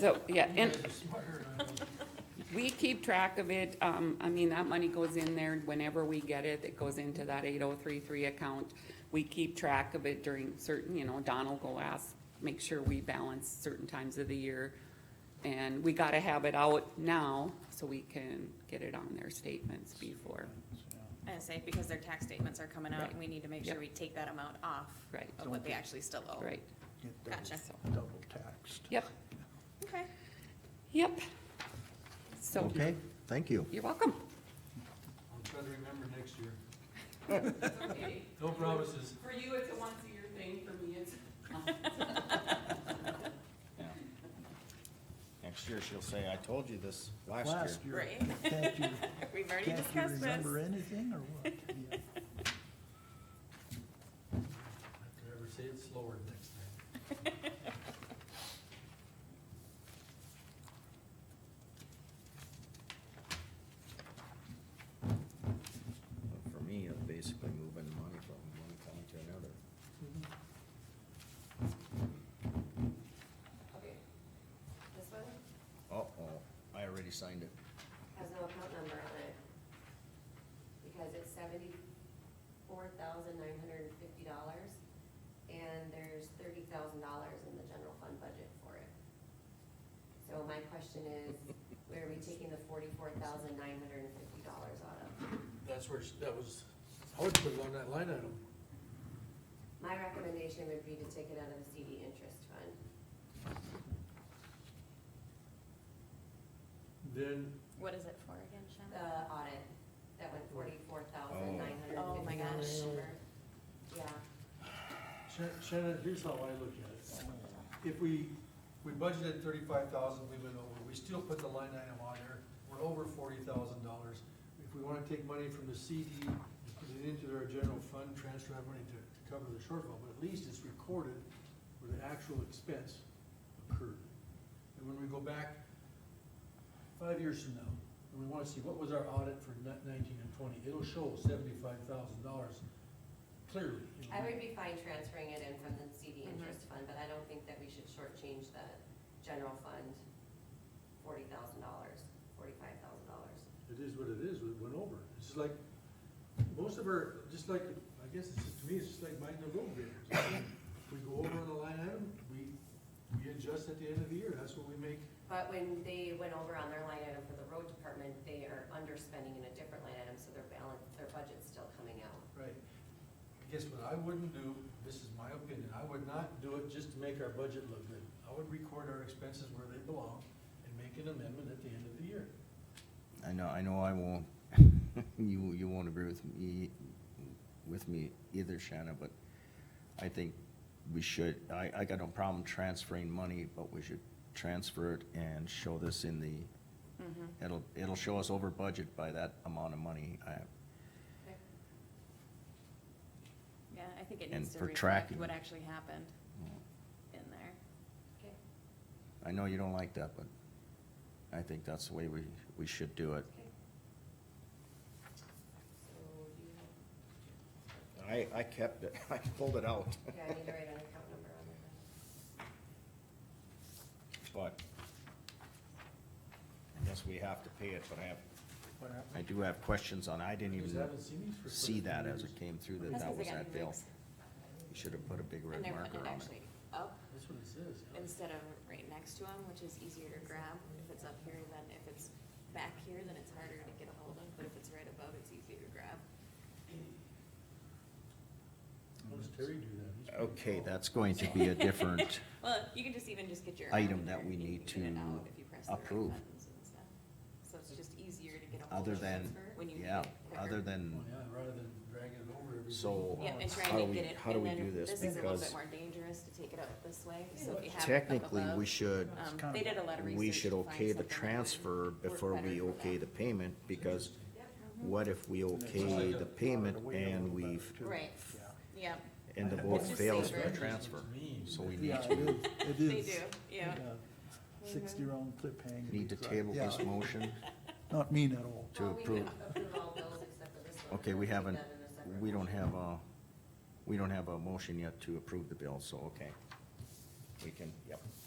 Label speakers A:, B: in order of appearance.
A: So, yeah, and we keep track of it. Um, I mean, that money goes in there whenever we get it. It goes into that eight oh three three account. We keep track of it during certain, you know, Don will go ask, make sure we balance certain times of the year. And we gotta have it out now so we can get it on their statements before,
B: I say, because their tax statements are coming out, and we need to make sure
A: Right.
B: we take that amount off
A: Right.
B: of what they actually still owe.
A: right?
C: Get double-
B: Gotcha.
C: Double taxed.
A: Yep,
B: Okay.
A: yep. So,
C: Okay, thank you.
A: you're welcome.
D: I'll try to remember next year. No promises.
A: For you, it's a once a year thing. For me, it's.
E: Yeah. Next year, she'll say, I told you this last year.
C: Last year,
B: Right.
C: can't you,
B: We've already
C: can't you
B: discussed
C: remember
B: this.
C: anything or what? Yeah.
D: If I ever say it slower next time.
E: But For me, it's basically moving money from one account to another.
F: Okay. This one
E: Uh-oh, I already signed it.
F: has no account number on it. Because it's seventy-four thousand nine hundred and fifty dollars, and there's thirty thousand dollars in the general fund budget for it. So my question is, where are we taking the forty-four thousand nine hundred and fifty dollars out of?
D: That's where, she- that was, I would put it on that line item.
F: My recommendation would be to take it out of the CD interest fund.
D: Then,
B: What is it for again, Shannon?
F: The audit, that went forty-four thousand nine hundred and
B: Oh, my gosh.
F: fifty dollars over. Yeah,
D: Shan- Shannon, here's how I look at it. If we, we budgeted thirty-five thousand, we went over, we still put the line item on there, we're over forty thousand dollars. If we wanna take money from the CD and put it into our general fund, transfer that money to, to cover the shortfall, but at least it's recorded where the actual expense occurred. And when we go back five years from now, and we wanna see what was our audit for ni- nineteen and twenty, it'll show seventy-five thousand dollars clearly. you know.
F: I would be fine transferring it in from the CD interest fund, but I don't think that we should shortchange the general fund forty thousand dollars, forty-five thousand dollars.
D: It is what it is, it went over. It's just like, most of our, just like, I guess it's, just- to me, it's just like buying the road bidders. We go over on the line item, we, we adjust at the end of the year, that's what we make.
F: But when they went over on their line item for the road department, they are underspending in a different line item, so their balance, their budget's still coming out.
D: Right. I guess what I wouldn't do, this is my opinion, I would not do it just to make our budget look good. I would record our expenses where they belong and make an amendment at the end of the year.
E: I know, I know I won't, you, you won't agree with me, with me either, Shanna, but I think we should, I, I got no problem transferring money, but we should transfer it and show this in the,
A: Mm-hmm.
E: it'll, it'll show us over budget by that amount of money. I,
B: Yeah, I think it
E: And
B: needs to
E: for
B: reflect
E: tracking.
B: what actually happened in there.
F: Okay.
E: I know you don't like that, but I think that's the way we, we should do it.
F: Okay. So, do you have,
E: I, I kept it, I pulled it out,
F: yeah, I need to write an account number on there.
E: but I guess we have to pay it, but I have,
D: What
E: I
D: happened?
E: do have questions on, I didn't
D: Because I
E: even
D: haven't seen these for
E: see
D: quite a
E: that
D: few
E: as
D: years.
E: it came through, that
B: That's
E: that
B: 'cause they
E: was
B: got
E: that
B: new
E: bill.
B: rigs.
E: You should have put a big
B: And
E: red
B: they're putting
E: marker
B: it
E: on
B: actually
E: it.
B: up
D: That's what it says. yeah.
B: instead of right next to them, which is easier to grab. If it's up here, then if it's back here, then it's harder to get a hold of, but if it's right above, it's easier to grab.
D: How does Terry do that? He's pretty
E: Okay,
D: tall.
E: that's going to be a different,
B: Well, you can just even just get your. arm
E: Item that
B: there
E: we
B: and you
E: need
B: can get it
E: to
B: out if you press the right
E: approve.
B: buttons and stuff. So it's just easier to get a hold
E: other
B: of
E: than,
B: transfer when you.
E: yeah,
B: get it quicker.
E: other
D: Well,
E: than,
D: yeah, rather than dragging it over every.
E: So-
B: Yep, and
E: How do
B: trying to
E: we-
B: get it,
E: how do
B: and
E: we
B: then
E: do this?
B: this is a little
E: Because-
B: bit more dangerous to take it out this way, so if you have. it up
E: technically, we
B: above,
E: should,
C: It's
B: Um,
C: kinda-
B: they did a lot of research.
E: we should
B: to find
E: okay the
B: something that would
E: transfer
B: work
E: before
B: better
E: we
B: for
E: okay the
B: them. Mm-hmm.
E: payment, because what if we
C: And it's not
E: okay
C: like
E: the
C: a-
E: payment
C: we know
E: and
C: about it,
E: we've,
C: too.
B: Right,
C: Yeah.
B: yep,
E: and the
C: It's
E: vote
B: just
E: fails for
B: safer.
E: the transfer? So we need
C: Yeah,
E: to.
C: it is. It
B: they
C: is.
B: do, yeah.
C: Sixty-year-old clip hanger.
E: Need to table this
C: Yeah,
E: motion?
C: Not mean at all.
E: To
F: Well, we can
E: approve.
F: approve all bills except for this one.
E: Okay, we
F: We'll take
E: haven't,
F: that in a separate
E: we don't
F: motion.
E: have a, we don't have a motion yet to approve the bill, so, okay. We can, yep.